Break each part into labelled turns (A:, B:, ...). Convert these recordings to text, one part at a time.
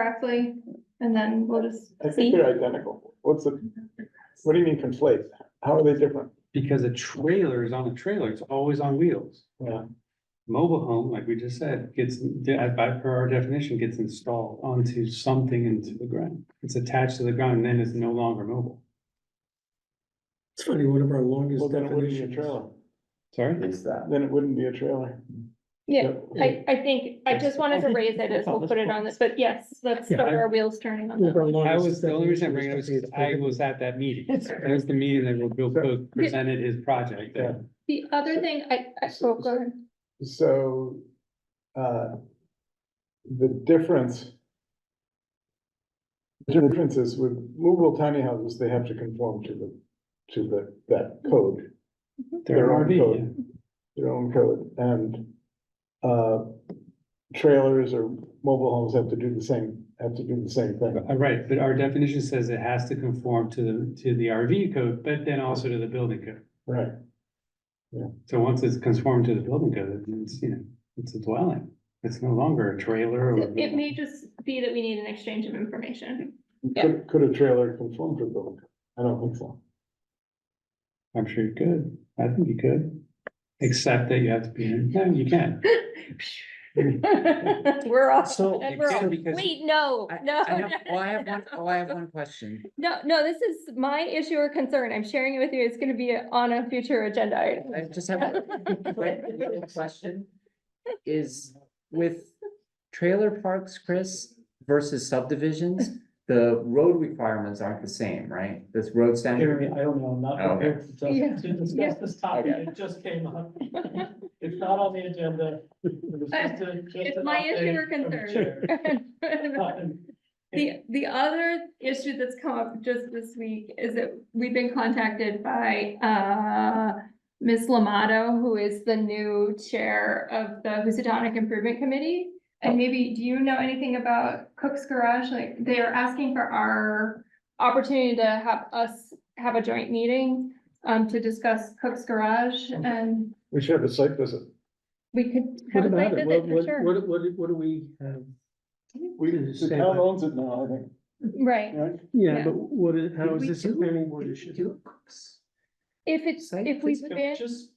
A: correctly, and then we'll just
B: I think
A: see.
B: they're identical. What's the, what do you mean conflate? How are they different?
C: Because a trailer is on a trailer, it's always on wheels.
B: Yeah.
C: Mobile home, like we just said, gets, by per our definition, gets installed onto something into the ground. It's attached to the ground and then it's no longer mobile.
D: It's funny, one of our
B: Well,
D: longest
B: then it wouldn't be a
D: definitions.
B: trailer.
C: Sorry?
E: Is that?
B: Then it wouldn't be a trailer.
A: Yeah, I, I think, I just wanted to raise it as we'll put it on this, but yes, let's
D: Yeah,
A: start
C: I-
A: our wheels turning on
D: One of
A: that.
D: our
C: I
D: longest
C: was, the only reason I
D: definitions
C: bring it up
D: to be
C: is 'cause I
D: a-
C: was at that meeting. That was the meeting that Bill Cook presented his project there.
A: The other thing I, I, oh, go ahead.
B: So, uh, the difference. The difference is with movable tiny houses, they have to conform to the, to the, that code,
C: Their
B: Their own
C: RV,
B: code.
C: yeah.
B: their own code, and, uh, trailers or mobile homes have to do the same, have to do the same thing.
C: Uh, Right, but our definition says it has to conform to the, to the RV code, but then also to the building code.
B: Right.
C: So once it's conformed to the building code, then it's, you know, it's a dwelling. It's no longer a trailer or.
A: It may just be that we need an exchange of information. Yeah.
B: Could, could a trailer conform to the building? code? I don't think so.
C: I'm sure you could. I think you could. Except that you have to be, in- no, you can't.
A: We're all,
D: So-
A: and we're all,
C: Except because-
A: wait, no,
F: I-
A: no.
F: I have,
A: no,
F: oh, I have one,
A: no.
F: oh, I have one question.
A: No, no, this is my issue or concern. I'm sharing it with you. It's gonna be on a future agenda item.
F: I just have a quick little question. Is with trailer parks, Chris, versus subdivisions, the road requirements aren't the same, right? This road standard,
G: Jeremy, I don't know, I'm not
F: Oh, Okay.
G: prepared to
A: Yeah.
G: just- to
A: Yeah.
G: discuss this topic,
F: Okay.
G: it just came up. It's not on the agenda. It was just a- just
A: It's
G: an
A: my issue
G: update
A: or
G: from the
A: concern.
G: chair. Um,
A: The, the other issue that's come up just this week is that we've been contacted by, uh, Ms. Lamato, who is the new chair of the Housatonic Improvement Committee.
D: Oh.
A: And maybe, do you know anything about Cook's Garage? Like, they are asking for our opportunity to have us have a joint meeting, um, to discuss Cook's Garage and
B: We should have a site visit.
A: we could
D: Mm-hmm. What
A: have a site
D: about it? What,
A: visit for
D: what,
A: sure.
D: what, what, what do we have?
B: We,
D: Did you
B: the
D: say
B: town
D: that?
B: owns it now, I think,
A: Right.
B: right?
A: Yeah.
D: Yeah, but what, is- how
F: Did
D: is
F: we
D: this a
F: do-
D: planning board
F: did we
D: issue?
F: do cooks?
A: If it's,
F: Site
A: if we've
F: visit?
G: Can we
A: been,
G: Just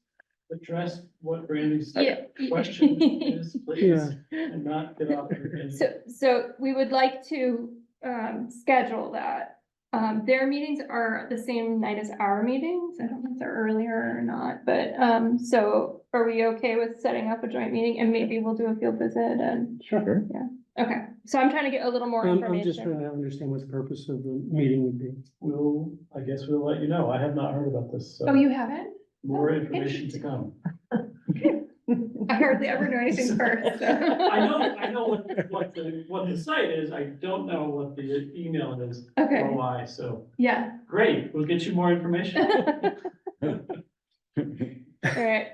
G: address what Brandy's
A: yeah.
G: question is, please,
D: Yeah.
G: and not get off. your tangent.
A: So, so we would like to, um, schedule that. Um, their meetings are the same night as our meetings. I don't know if they're earlier or not, but, um, so are we okay with setting up a joint meeting and maybe we'll do a field visit and,
F: Sure.
A: okay. So I'm trying to get a little more
D: I'm, I'm just
A: information.
D: trying to understand what the purpose of the meeting would be.
G: We'll, I guess we'll let you know, I have not heard about this,
A: Oh,
G: so
A: you haven't?
G: more information to come.
A: I hardly ever know anything first. so.
G: I know, I know what, what the, what the site is, I don't know what the email is or
A: Okay,
G: why, so,
A: yeah.
G: great, we'll get you more information.
A: All right,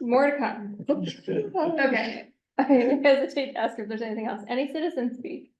A: more to come. Okay, I hesitate to ask if there's anything else. Any citizens speak?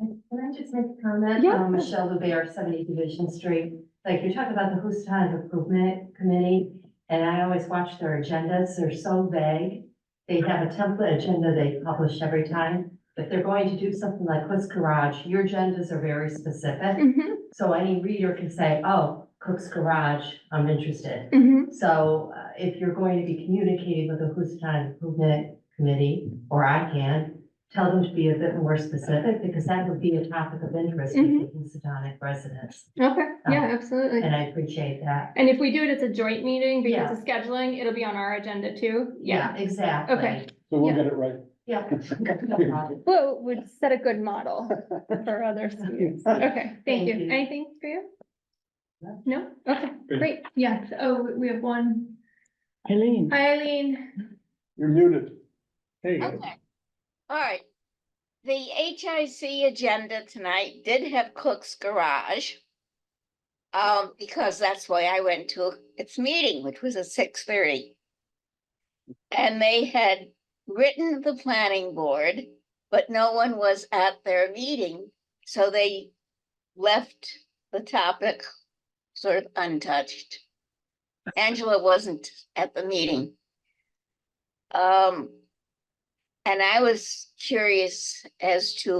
H: Can I just make a comment?
A: Yeah.
H: Um, Michelle Lubert, seventy Division Street. Like, you talk about the Houstonic Improvement Committee, and I always watch their agendas. They're so vague. They have a template agenda they publish every time. If they're going to do something like Cook's Garage, your agendas are very specific.
A: Mhm,
H: So any reader can say, oh, Cook's Garage, I'm interested.
A: mhm.
H: So uh, if you're going to be communicating with the Houston Improvement Committee, or I can, tell them to be a bit more specific, because that would be a topic of interest with the
A: Mm-hmm.
H: Houstonic residents,
A: Okay, yeah, absolutely.
H: Um, and I appreciate that.
A: And if we do it, it's a joint meeting
H: Yeah.
A: because of scheduling, it'll be on our agenda too. Yeah.
H: Exactly.
A: Okay.
B: So we'll
A: Yeah.
B: get it right.
H: Yeah. No problem.
A: Well, would set a good model for other students. Okay, thank
H: Thank
A: you.
H: you.
A: Anything for you?
H: No.
A: No? Okay, great. Yeah, oh, we- we have one.
F: Eileen.
A: Eileen.
B: You're muted.
C: There you go.
I: Okay, all right. The HIC agenda tonight did have Cook's Garage. Um, because that's why I went to its meeting, which was at six thirty. And they had written the planning board, but no one was at their meeting, so they left the topic sort of untouched. Angela wasn't at the meeting. Um, And I was curious as to